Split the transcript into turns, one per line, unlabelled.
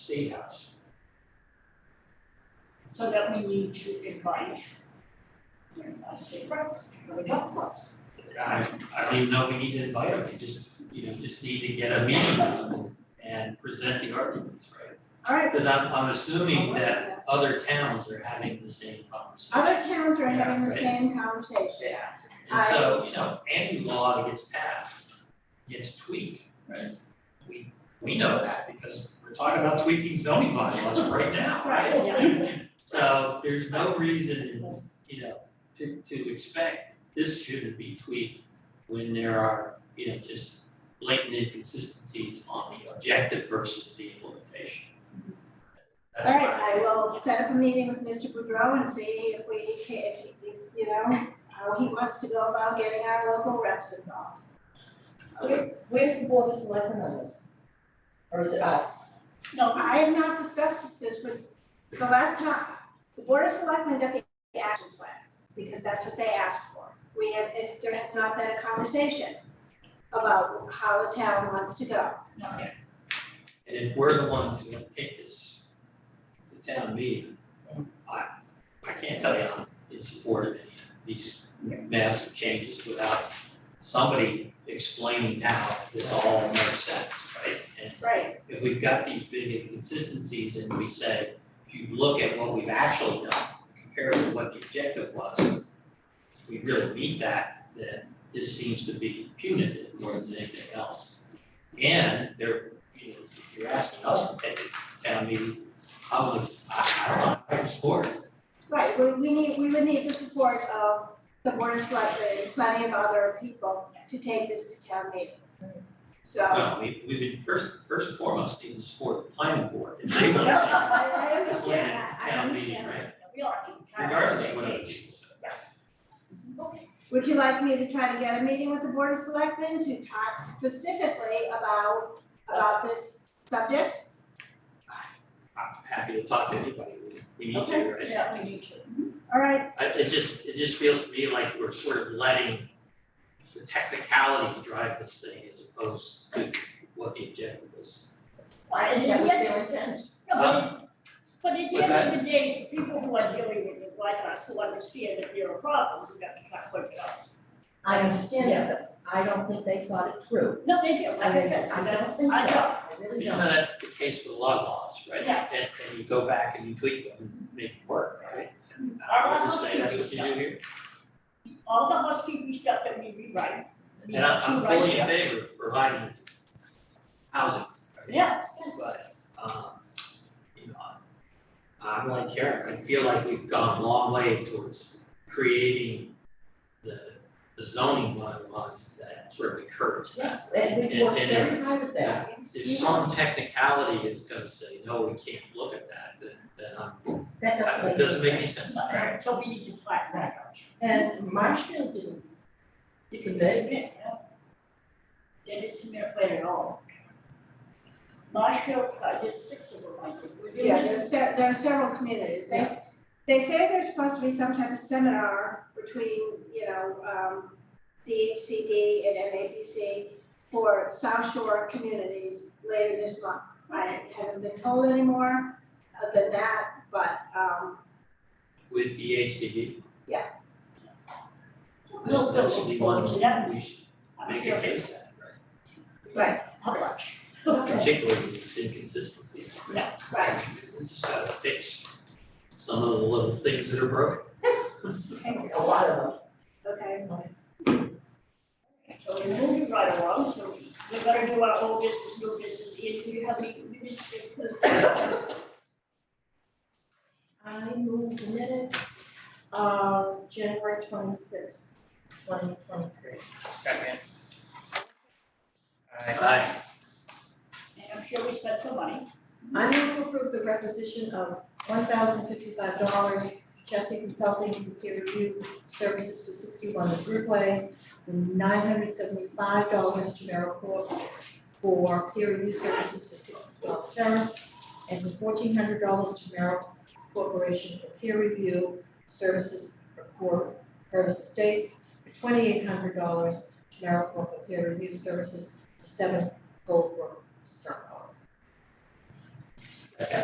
State House.
so that we need to invite. I say, right, to the golf course.
I, I don't even know if we need to invite them, we just, you know, just need to get a meeting on and present the arguments, right?
Alright,
Because I'm, I'm assuming that other towns are having the same conversation.
other towns are having the
Yeah, right.
same conversation.
And so, you know, any law that gets passed gets tweaked, right? We, we know that because we're talking about tweaking zoning bylaws right now, right?
Right,
So there's no reason, you know, to to expect this shouldn't be tweaked when there are, you know, just blatant inconsistencies on the objective versus the implementation. That's why.
Alright, I will set up a meeting with Mr. Boudreau and see if we, ca- if, he- if, you know, how he wants to go about getting our local reps involved.
I would-
Where's the board of selectmen on this? Or is it us?
No, I have not discussed this with, the last time, the board of selectmen got the action plan, because that's what they asked for. We have, it- there has not been a conversation about how the town wants to go.
And if we're the ones who have to take this to town meeting, I I can't tell you I'm in support of any of these massive changes without somebody explaining how this all makes sense, right? And
Right,
if we've got these big inconsistencies and we say, if you look at what we've actually done compared to what the objective was, if we really meet that, then this seems to be punitive more than anything else. And there, you know, if you're asking us to take it to town meeting, I would, I, I don't know, I would support it.
right, we, we need, we would need the support of the board of selectmen and plenty of other people to take this to town meeting. So,
No, we, we would first, first and foremost need to support the planning board. If they want to
I,
explain
I understand
it
that,
to
I
town
understand.
meeting, right?
we are to kind of
Regardless
say,
of what other
hey,
people say.
Would you like me to try to get a meeting with the Board of Selectmen to talk specifically about, about this subject?
I'm happy to talk to anybody, we- we need to,
Okay.
right?
yeah, we need to.
All right,
I, it just, it just feels to me like we're sort of letting the technicalities drive this thing as opposed to what the objective is.
Why did
That
it
was
get
their
there?
intent.
No, but, it- but at
Um, What's
the end of the day, the people who are dealing with it, like us, who understand that there are problems, we have to kind of work it out.
I understand that, but I don't think they thought it through.
No, they do, like I said, so
I don't
that's,
think so,
I don't,
I really
You
don't.
know, that's the case with a lot of laws, right?
Yeah.
And, and you go back and you tweak them and make it work, right? And
Our
I would just
laws
say
do
that's
do
what you do
stuff.
here.
all the housekeeping stuff that we rewrite. we
And I'm,
need
I'm
to write
fully
it
in
up.
favor of providing housing, right?
Yeah,
But, um, you know, I'm like Karen, I feel like we've gone a long way towards creating the, the zoning bylaws that sort of encourage. that.
Yes, and we worked
And- and if-
very hard at that.
If some technicality is gonna say, no, we can't look at that, then, then I'm,
That doesn't make
it
any
doesn't make any
sense.
sense.
so- so we need to flatten that out.
And Marshfield didn't
Did it
submit,
submit, yeah? They didn't submit a plan at all. Marshfield, I did six of them, I did, we did
Yeah,
this.
there's se- there are several communities, they, s- they say there's supposed to be some type of seminar between, you know, um, DHCD and MAPC for South Shore communities later this month. I haven't been told any more than that, but, um,
With DHCD,
We'll,
that,
we'll
that should be
look
one,
forward to that.
we should
I
make
feel
a
that-
case at, right?
right,
How much?
Particularly these inconsistencies.
Yeah,
right.
We just gotta fix some of the little things that are broken.
a lot of them.
Okay,
So we're moving right along, so we better do our old business, new business, Ian, do you have any new business?
I moved minutes of January twenty-sixth, twenty twenty-three.
Second. Aye.
Aye.
And I'm sure we spent some money.
I move to approve the requisition of one thousand fifty-five dollars Chelsea Consulting for peer review services for sixty-one Broadway, and nine hundred seventy-five dollars to Merrill Corp for peer review services for sixty-twelve Terrace, and for fourteen hundred dollars to Merrill Corporation for peer review services for Purvis Estates, for twenty-eight hundred dollars to Merrill Corp for peer review services for seven Goldbrook Circle.